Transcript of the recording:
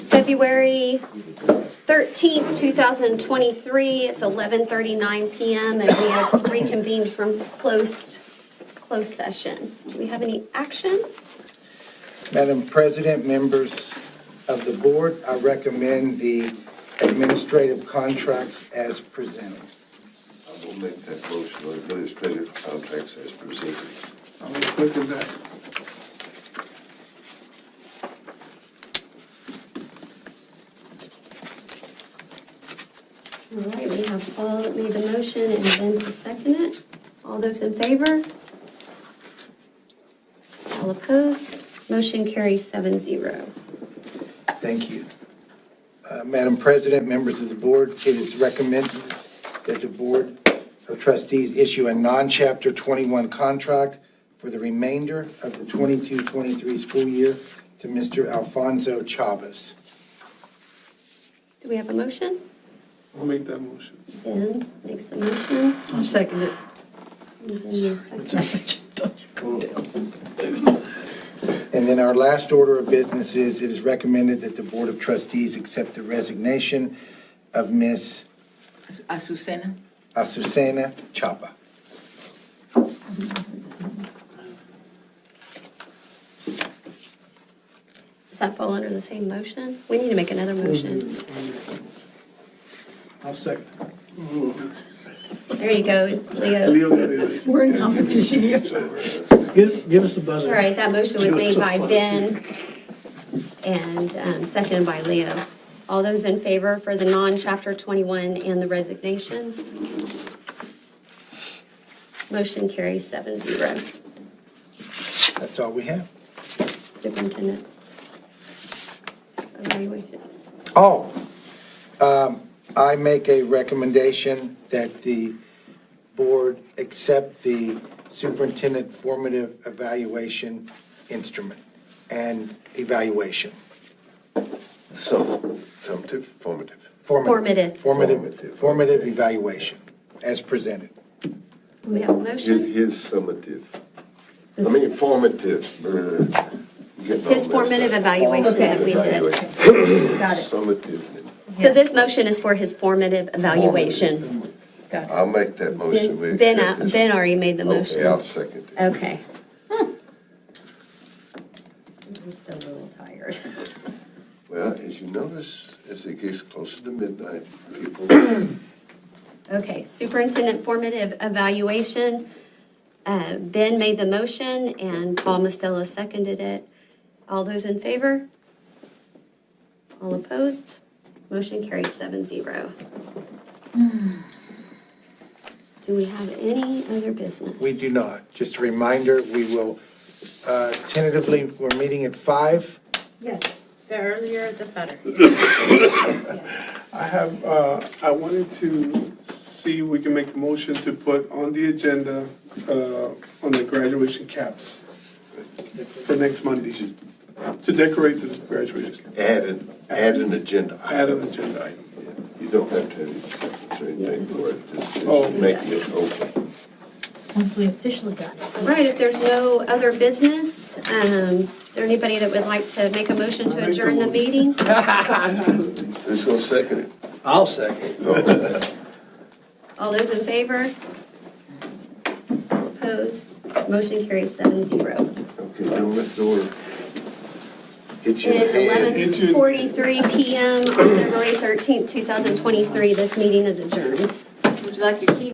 February 13th, 2023. It's 11:39 PM and we have reconvened from closed, closed session. Do we have any action? Madam President, members of the board, I recommend the administrative contracts as presented. I will make that motion on administrative contracts as presented. I will second that. All right, we have Paul that made the motion and Ben to second it. All those in favor? All opposed? Motion carries seven zero. Thank you. Uh, Madam President, members of the board, it is recommended that the Board of Trustees issue a non-Chapter 21 contract for the remainder of the 22-23 school year to Mr. Alfonso Chavez. Do we have a motion? I'll make that motion. Ben makes the motion. I'll second it. and Ben, you second. And then our last order of business is, it is recommended that the Board of Trustees accept the resignation of Ms. Azucena? Azucena Chapa. Does that fall under the same motion? We need to make another motion. I'll second. There you go, Leo. Leo, that is. We're in competition here. Give, give us the buzzer. All right, that motion was made by Ben and um, seconded by Leo. All those in favor for the non-chapter 21 and the resignation? Motion carries seven zero. That's all we have. Superintendent. Evaluation. Oh, um, I make a recommendation that the board accept the superintendent formative evaluation instrument and evaluation. Some, some to formative. Formative, Formative. formative formative evaluation as presented. Do We have a His, motion. his summative, I mean formative. uh, getting all His formative messed up. evaluation that we Formative did. evaluation. Got it. Summative. So this motion is for his formative evaluation. Got I'll make that motion. We Ben, accept uh, this. Ben already made the Oh, Okay, I'll motion. Uh, second it. Okay. I'm still a little tired. Well, as you notice, as it gets closer to midnight, people, Okay, superintendent formative evaluation. Uh, Ben made the motion and Paul Mostello seconded it. All those in favor? All opposed? Motion carries seven zero. Do we have any other business? We do not. Just a reminder, we will uh, tentatively, we're meeting at five. Yes, the earlier the better. I have, uh, I wanted to see if we can make the motion to put on the agenda, uh, on the graduation caps for next Monday, to decorate the graduation, add an, add an agenda. add an agenda item. You don't have to have a second or anything for it, just Oh. just making it open. Once we officially got it. All right, if there's no other business, um, is there anybody that would like to make a motion to adjourn the meeting? Who's gonna second it? I'll second. All those in favor? Opposed? Motion carries seven zero. Okay, don't let the door hit It you in is the head. Hit you. 11:43 PM on February 13th, 2023. This meeting is adjourned. it. Would you like your key?